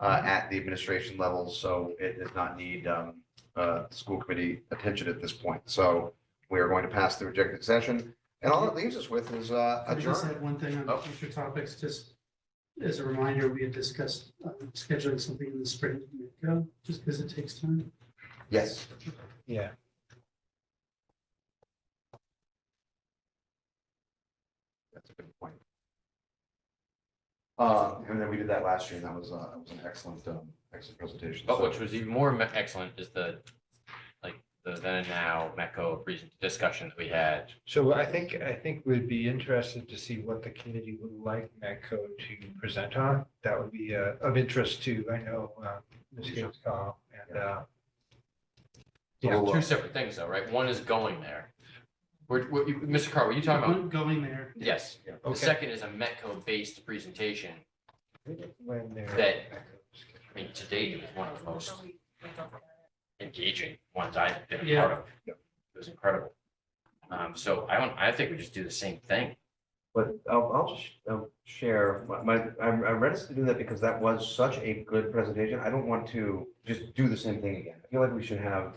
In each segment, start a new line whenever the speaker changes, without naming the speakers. Mm-hmm.
uh, at the administration level, so it does not need, um, uh, school committee attention at this point. So we are going to pass the rejected session, and all it leaves us with is, uh,
I just
adjourn.
had one thing
Oh.
on future topics, just as a reminder, we had discussed uh, scheduling something in the spring, uh, just because it takes time.
Yes.
Yeah.
That's a good point. Uh, and then we did that last year, and that was, uh, it was an excellent, um, excellent presentation.
But
So-
Oh, which was even more me- excellent is the, like, the then and now Metco reason discussion that we had.
So I think, I think we'd be interested to see what the committee would like Metco to present on. That would be uh, of interest to, I know, uh, Ms. Gates Call and, uh, yeah,
Well, uh,
Two separate things though, right? One is going there. We're, we're- you- Mr. Carr, were you talking about?
One Going there,
Mm-hmm.
Yes. The
okay.
second is a Metco-based presentation.
When they're.
That- I mean, to date, it was one of the most engaging ones I've been a part
Yeah.
of. It was incredible. Um, so I don't, I think we just do the same thing.
But I'll, I'll just um, share, my- my, I'm I'm reticent to do that because that was such a good presentation. I don't want to just do the same thing again. I feel like we should have,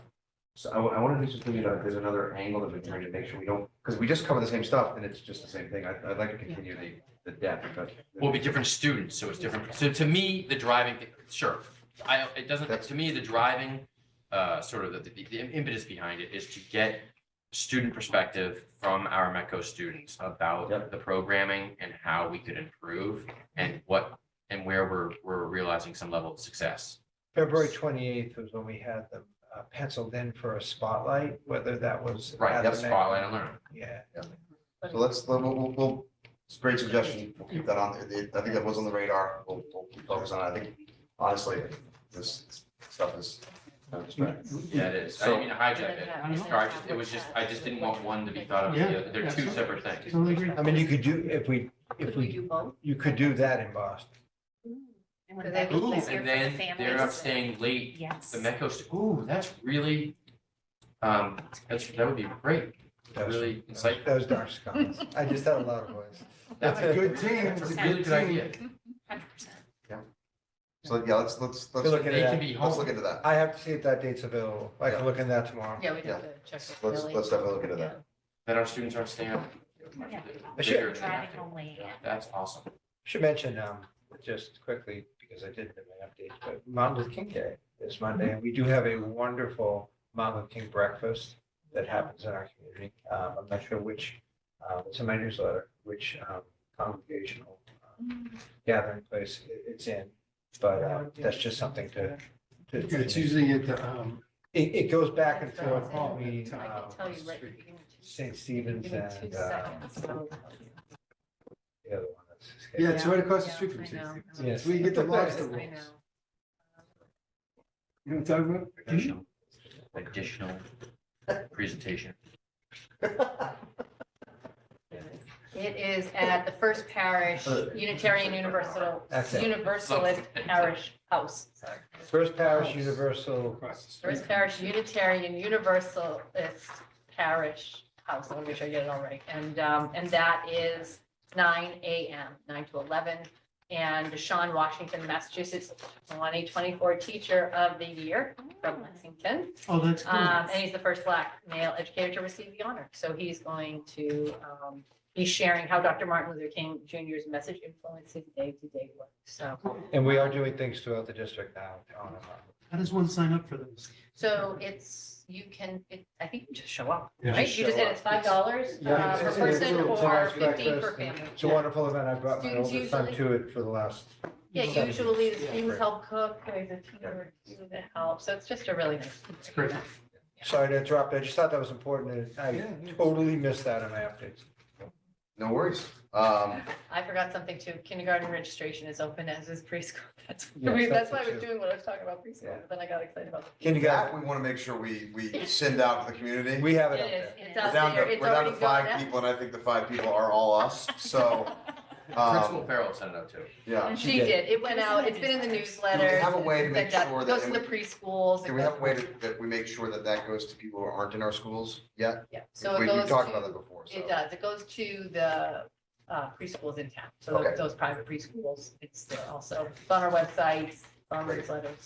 so I, want to do something, you know, there's another angle that we can bring to make sure we don't, because we just cover the same stuff and it's just the same thing. I- I'd like to continue the, the depth, but.
Will be different students, so it's different. So to me, the driving, thing- sure, I, it doesn't,
That's-
to me, the driving, uh, sort of the, the the impetus behind it is to get student perspective from our MECO students
Yep.
about the programming and how we could improve and what, and where we're, we're realizing some level of success.
February twenty-eighth was when we had them uh, penciled in for a spotlight, whether that was.
Right,
at
that's
the Metco-
spotlight and learn.
Yeah.
So let's, we'll, we'll- we'll, it's a great suggestion. We'll keep that on, there. I think that was on the radar. We'll, we'll focus on it. I think, honestly, this stuff is. kind of distracting.
Yeah, it is. I
So-
didn't mean to hijack it.
I don't
Sorry, I just, it was just, I just didn't want one to be thought of as
Yeah,
the other. They're two
absolutely.
separate things.
totally agree.
I mean, you could do, if we, if
Could we
we,
do both?
you could do that in Boston.
And would that be
Ooh,
easier
and
for the
then they're up
families?
staying late.
Yes.
The Metco, stu- ooh, that's really, um, that's, that would be great.
That was-
Really insightful.
That was dark skies. I just had a lot of voice.
That's
a good
team.
That's a really good idea.
Hundred percent.
So, yeah, let's, let's, let's,
Good
let's
looking.
They can be
look
home.
into that.
I have to see if that date's available. I
Yeah.
can look in that tomorrow.
Yeah, we'd
have
have to check
Let's,
with
let's definitely look into that.
That our students aren't staying up.
Yeah.
later in the
Driving
afternoon.
home late.
Yeah, That's awesome.
Should mention, um, just quickly, because I didn't in my update, but Martin Luther King Day is Monday. and We do have a wonderful Martin Luther King breakfast that happens in our community. Um, I'm not sure which, um, it's in my newsletter, which, um, congregational um, gathering place it- it's in. But, uh, that's just something to, to,
It's
it,
usually at the, um,
it goes back and forth
That's all.
between,
I
I
um,
can tell you right.
St. Stephen's and, uh, the other one that's.
yeah, it's
Yeah.
right across the
Yeah,
street from
I
Tuesday.
know.
Yes.
We get the last of
I
them.
know.
You know what I'm talking about?
Additional, additional presentation.
It is at the First Parish
Uh,
Unitarian Universal,
That's it.
Universalist Parish House. sorry.
First Parish Universal
Across the street.
First Parish Unitarian Universalist Parish House. Let me make sure I get it all right. And, um, and that is nine AM, nine to eleven. And Deshaun Washington, Massachusetts, one A twenty-four Teacher of the Year from Lexington.
Oh, that's cool.
Um, and he's the first black male educator to receive the honor. So he's going to, um, he's sharing how Dr. Martin Luther King Jr.'s message influenced his day-to-day work. So,
And we are doing things throughout the district now. on and off.
How does one sign up for those?
so it's, you can, it, I think you just show up,
Yeah.
right? You just said it's five dollars uh,
Yeah,
per
it's- it's
person
a
nice
or fifteen per
breakfast and
family.
It's a wonderful event. I brought my
Students
oldest son to it for the last.
Yeah, usually the
Yeah.
students help cook, there's a teacher that helps. So it's just a really nice.
It's great.
Sorry to interrupt. I just thought that was important. and I
Yeah.
totally missed that in my updates.
No worries. Um,
I forgot something too. Kindergarten registration is open as is preschool. That's,
Yes,
I mean,
that's
that's why I
what
was
you-
doing what I was talking about preschool,
Yeah.
but then I got excited about.
Kindergarten,
that we want to make sure we, we send out to the community.
we have
It
it up
is,
there.
it's
We're
out
down
there,
to,
it's
we're down
already
to
going
five
out.
people and I think the five people are all us. So,
Principal
um,
Farrell sent it out too.
yeah.
And She did, it went out, it's been in the newsletter.
Do we have a way to make sure that-
Goes to the preschools. it
Can we have a
goes-
way to- that we make sure that that goes to people who aren't in our schools yet?
Yeah, so
We-
it goes
We've talked about
to,
that before. so.
it does, it goes to the uh, preschools in town, so
Okay.
those private preschools, it's also it's on our website, it's Bond newsletters.